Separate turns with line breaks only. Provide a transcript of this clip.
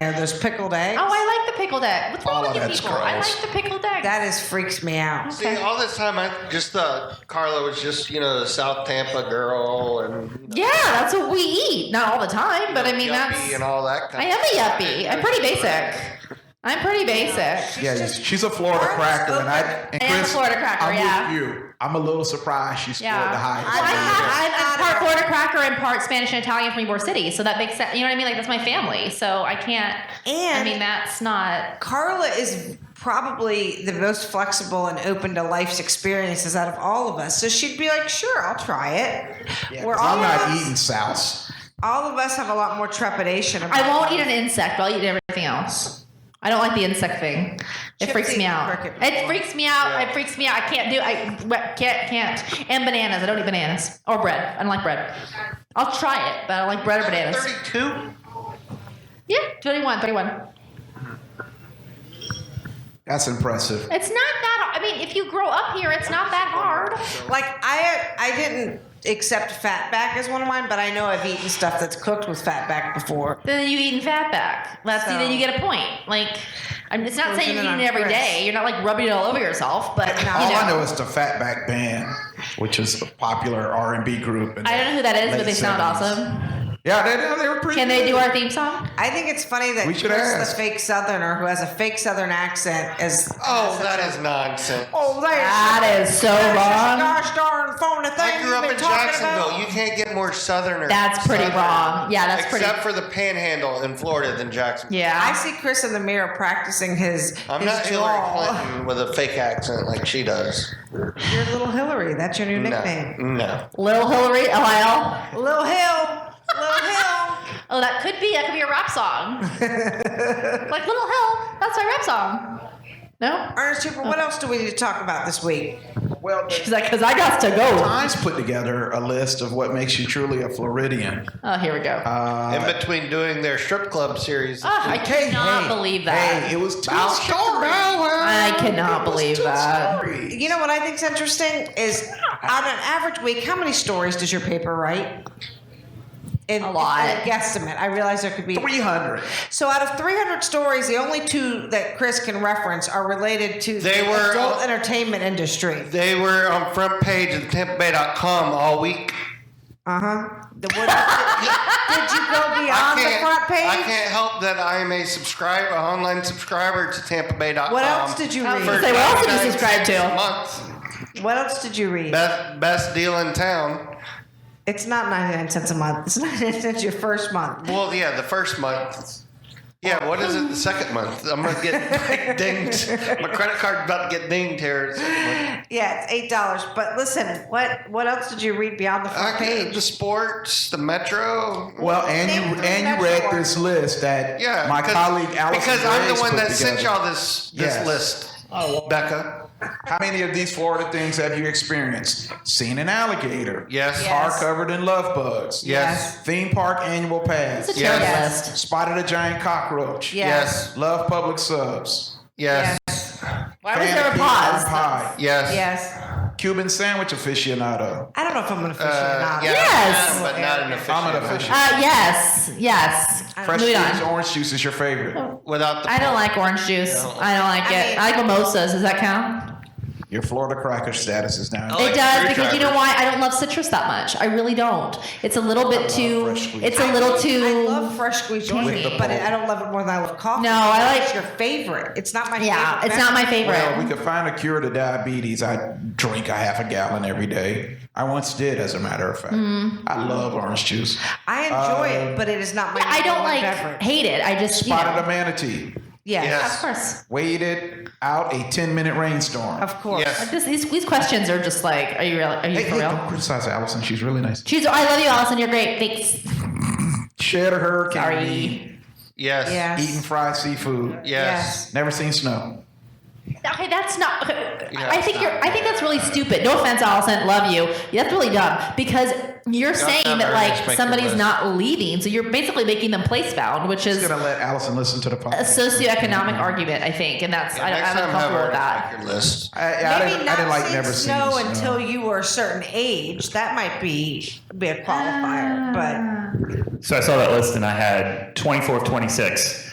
there. There's pickled eggs.
Oh, I like the pickled egg. What's wrong
Oh,
with you
that's
people? I
gross.
like the pickled egg.
That is freaks me out.
See, uh, all this time, I just thought Carla was just, you know, the South Tampa girl and you know,
yeah, that's what we eat. Not all the time, but I mean,
yuppie
that's.
and all that kind
I
of
am a yuppie. I'm pretty basic. I'm pretty basic.
Yeah,
just-
she's a Florida
Florida's
cracker, and I and
I am a
Chris,
Florida cracker,
I'm
yeah.
with you. I'm a little surprised she scored
Yeah.
the highest.
I,
rating.
I, I'm part Florida cracker and part Spanish and Italian from Ybor City, so that makes sense. You know what I mean? Like that's my family, so I can't. I
And-
mean, that's not.
Carla is probably the most flexible and open to life's experiences out of all of us. So she'd be like, "Sure, I'll try it."
Yeah,
Where
'cause I'm
all
not
of us,
eating souse.
all of us have a lot more trepidation. About
I won't eat an insect, but I'll eat everything else. I don't like the insect thing. It
Chip's
freaks me
eaten
out.
cricket
It
before.
freaks me out.
Yeah.
It freaks me out. I can't do. I can't. Can't. And bananas. I don't eat bananas or bread. I don't like bread. I'll try it, but I don't like bread or bananas.
32?
Yeah, 21, 31.
That's impressive.
It's not that. I mean, if you grow up here, it's not that hard.
Like I, I didn't accept fatback as one of mine, but I know I've eaten stuff that's cooked with fatback before.
Then you eating fatback. That's
So-
then you get a point. Like, I'm, it's not
Closing
saying you're
in
eating
on
it every
Chris.
day. You're not like rubbing it all over yourself, but you
All I know
know.
is the Fatback Band, which is a popular R&B group. in
I don't know who that is, but
late
they sound
70s.
awesome.
Yeah, they, they were pretty.
Can they do
good.
our theme song?
I think it's funny that
We should
Chris, the
ask.
fake Southerner who has a fake Southern accent, is
Oh, that is nonsense.
oh, there's
That is so
there's this
wrong.
Gosh darn phony thing
I grew
you've
up
been
in
talking
Jacksonville.
About.
You can't get more southerner.
That's pretty
Southerner.
wrong. Yeah, that's pretty.
Except for the panhandle in Florida than Jacksonville.
I
yeah.
see Chris in the mirror practicing his.
I'm
his
not
drawl.
Hillary Clinton with a fake accent like she does.
You're Little Hillary. That's your new
No.
nickname.
No.
Little Hillary, LIL.
Little Hill. Little Hill.
Oh, that could be. That could be a rap song. like Little Hill. That's my rap song. No?
Ernest Cooper, what else do we need to talk about this week?
Well,
She's like, because I got to go.
Times put together a list of what makes you truly a Floridian. Uh,
Oh, here we go.
in between doing their strip club series.
Ah, I cannot believe that.
Hey, it was two
Bow-
story.
I cannot believe that.
You know what I think's interesting is on an average week, how many stories does your paper write? In,
A lot.
in a guesstimate. I realize there could be.
Three hundred.
So out of 300 stories, the only two that Chris can reference are related to
They
the
were-
adult entertainment industry.
They were on front page of TampaBay.com all week.
Uh
Uh-huh.
huh. The what, did you go
I
beyond the
can't-
front page?
I can't help that I am a subscriber, an online subscriber to TampaBay.com.
What else did you
Um,
read?
Say, what else did you
99
subscribe to?
Months.
What else did you read?
Best, best deal in town.
It's not 99 cents a month. It's 99 cents your first month.
Well, yeah, the first month. Yeah, what is it? The second month. I'm gonna get dinged. My credit card's about to get dinged here.
Yeah, it's eight dollars. But listen, what what else did you read beyond the front
Okay,
page?
the sports, the metro.
Well, and
Name
you
three
and you
best
read this list that
Yeah,
my
'cause-
colleague Allison
Because I'm
Grace
the one
put
that sent
together.
y'all this this
Yes.
list,
Oh,
Becca.
How many of these Florida things have you experienced? Seen an alligator?
Yes.
Car
Yes.
covered in love bugs.
Yes.
Theme park annual pass.
It's a
Yes.
terrible
Yes.
list.
Spotted a giant cockroach.
Yes.
Love public subs.
Yes.
Why was
Fan
there
of
a
pecan
pause?
Pie.
Yes.
Yes.
Cuban sandwich aficionado.
I don't know if I'm an
Uh,
aficionado.
yeah,
Yes.
I am, but not an official.
I'm an official.
Uh, yes, yes.
Fresh
Moving
squeezed
on. Oh.
orange juice is your favorite.
Without the
I don't like orange juice. I don't like
I
it.
mean-
I like mimosas. Does that count?
Your Florida cracker status is now.
I like
it does because
screwdrivers.
you know why? I don't love citrus that much. I really don't. It's a little bit too.
fresh squeezed.
It's a little
I
too.
love fresh squeezed orange,
With
the
but
pulp.
I don't love it more than I love coffee.
No, I like-
It's your favorite. It's not my
yeah,
favorite.
it's not my favorite.
Well, we could find a cure to diabetes. I drink a half a gallon every day. I once did, as a matter of fact.
Mm-hmm.
I love orange juice.
I enjoy
Uh,
it, but it is not my.
I don't
number one
like
Beverage.
hate it. I just you
Spotted a
know.
manatee.
Yeah,
Yes.
Of course,
Waited out a 10 minute rainstorm.
of course.
Yes.
This- these, these questions are just like, are you real? Are you
Hey,
for
hey,
real?
don't criticize Allison. She's really nice.
She's. I love you, Allison. You're great. Thanks.
Shed a hurricane.
Sorry.
Yes.
Yes.
Eating fried seafood.
Yes.
Never seen snow.
Okay, that's not. okay,
Yeah,
I
it's
think
not.
you're. I think that's really stupid. No offense, Allison. Love you. That's really dumb because you're saying
not
that
very
like
nice, make your
somebody's
list.
not leaving, so you're basically making them place bound, which is
Just gonna let Allison listen to the
Uh,
a
podcast.
socioeconomic argument. I think, and that's I don't,
Next
I'm
time, have
uncomfortable
her
with that.
make your list.
I, I
Maybe
didn't,
not
I didn't like
seeing
never seen
snow until you were a certain age. That might be
Ah.
be a qualifier, but
So I saw that list and I had 24 of 26.